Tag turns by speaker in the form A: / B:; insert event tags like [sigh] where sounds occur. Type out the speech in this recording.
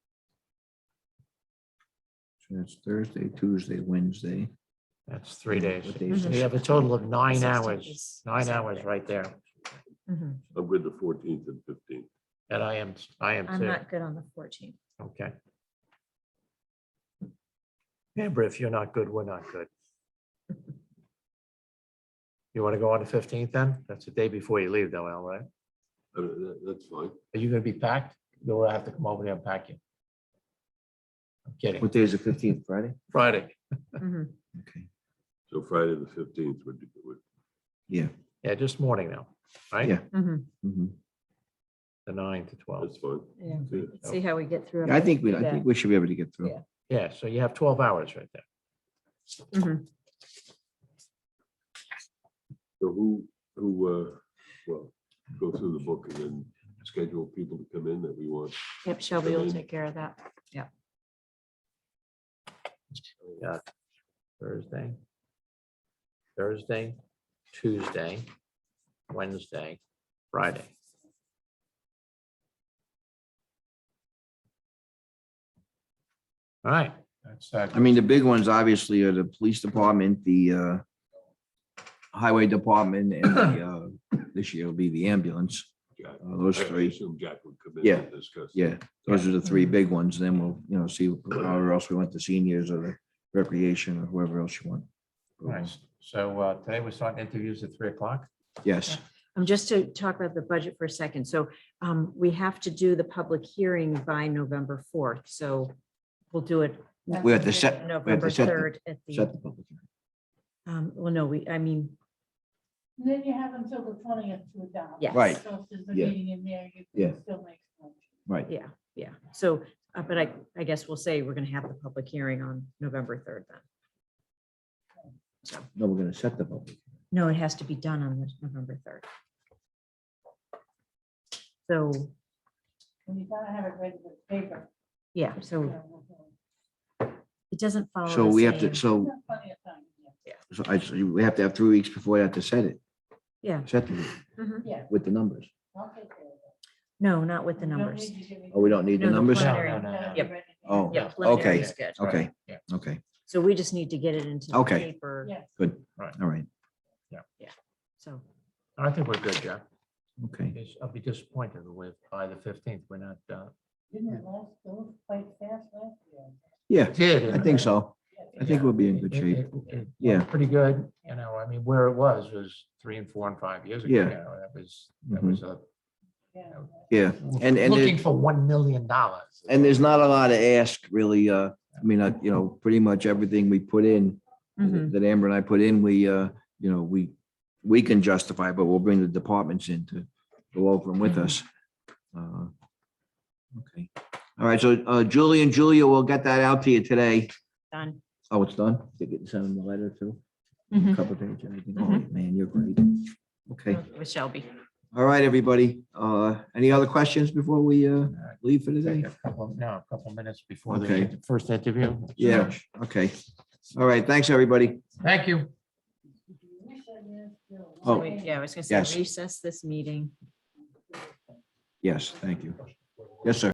A: That's Thursday, Tuesday, Wednesday.
B: That's three days.
A: What days?
C: Mm-hmm.
B: We have a total of nine
C: 16
B: hours,
C: is
B: nine
C: Saturday.
B: hours right there.
C: Mhm.
D: I'm good the fourteenth and fifteenth.
B: And I am, I am
C: I'm
B: too.
C: not good on the fourteenth.
B: Okay. Amber, if you're not good, we're not good. You want to go on the fifteenth then? That's the day before you leave though, Al, right?
D: Uh, That's fine.
B: Are you gonna be packed? Do I have to come over there and pack you? I'm kidding.
A: What day is the fifteenth, Friday?
B: Friday.
C: Mm-hmm,
A: Okay,
D: So Friday, the fifteenth would be good.
A: yeah.
B: Yeah, just morning now, right?
A: Yeah.
C: mm-hmm.
A: mhm.
B: The nine to twelve.
D: That's fine.
C: Yeah,
D: Yeah.
C: let's see how we get through.
A: Yeah, I think we, I
C: Yeah.
A: think we should be able to get through.
C: Yeah.
B: Yeah, so you have twelve hours right there.
D: So who, who, uh, well, go through the book and then schedule people to come in that we want.
C: Yep, Shelby will take care of that.
B: We got Thursday. Thursday, Tuesday, Wednesday, Friday. All right.
A: I mean, the big ones obviously are the police department, the uh, highway department and
C: [coughs]
A: the, uh, this year will be the ambulance.
D: Jack.
A: Uh, Those
D: I
A: three,
D: assume Jack would come in.
A: Yeah.
D: and Discuss.
A: yeah, those are the three
C: Mm-hmm.
A: big ones. Then we'll, you know, see whoever else we want, the seniors or the recreation or whoever else you want.
B: Nice. So uh, today we're starting interviews at three o'clock.
A: Yes,
C: Um, just to talk about the budget for a second. So, um, we have to do the public hearing by November fourth, so we'll do it.
A: We have to set- we have to
C: November
A: set the-
C: third at
A: set the
C: the,
A: public hearing.
C: um, well, no, we, I mean,
E: And Then you have until the twentieth to adopt.
C: Yes.
A: Right.
E: So if there's a
A: Yeah.
E: meeting in there, you
A: Yeah.
E: can still make. a motion.
A: Right,
C: yeah, yeah. So, uh, but I, I guess we'll say we're gonna have the public hearing on November third then.
A: no, we're gonna set the public.
C: No, it has to be done on the- November third. So,
E: And you gotta have it ready with paper.
C: yeah,
E: you
C: so
E: know, with, uh,
C: it doesn't follow.
A: So
C: the
A: we have to,
C: same-
E: you
A: so,
E: have Plenty of time, yeah.
A: so I, so we have to have three weeks before I have to set it,
C: Yeah.
A: set it
C: mhm.
E: Yeah,
A: with the numbers.
E: I'll take care of that.
C: No, not with the
E: You don't
C: numbers.
E: need to give me-
A: Oh, we don't need the
C: No, the
A: numbers?
C: plan-
B: No, no, no, no.
E: Gotta be ready.
A: Oh,
C: Yeah,
B: Yeah,
C: preliminary
A: okay,
C: is good.
A: okay,
B: Yeah.
A: okay,
C: So we just need to get it into. the
A: Okay.
C: Paper,
E: Yes.
A: good.
B: Right.
A: All right,
C: so,
B: I think we're good, Jack.
A: okay.
B: Yes, I'll be disappointed with by the fifteenth, we're not uh,
E: Didn't it last, it was quite fast last year.
A: Yeah,
B: did.
A: I think so. I think we'll be in good
B: It-
A: shape.
B: it- it went
A: Yeah.
B: Pretty good, you know, I mean, where it was, was three and four and five years ago.
A: Yeah.
B: you know, That was, that
A: Mhm.
B: was a.
E: Yeah.
A: Yeah, and, and,
B: Looking
A: there-
B: for one million dollars.
A: and there's not a lot to ask really. Uh, I mean, uh, you know, pretty much everything we put in
C: mhm,
A: that Amber and I put in, we, uh, you know, we, we can justify, but we'll bring the departments in to go over them
C: Mm-hmm.
A: with us. Uh, Okay. All right. So uh, Julie and Julia will get that out to you today.
C: done.
A: Oh, it's done? They get sent in the letter too?
C: Mhm.
A: Cover page, everything. All
C: Mhm.
A: right, man, you're great. Okay.
C: With Shelby.
A: All right, everybody. Uh, any other questions before we, uh,
B: right.
A: leave for today?
B: Take a couple- No, a couple minutes before
A: Okay.
B: the first interview.
A: Yeah, okay. All right, thanks, everybody.
B: Thank you.
E: Wish I knew still.
C: So
A: Oh.
C: we- Yeah, I was gonna
A: Yes.
C: say recess this meeting.
A: Yes, thank you. Yes, sir.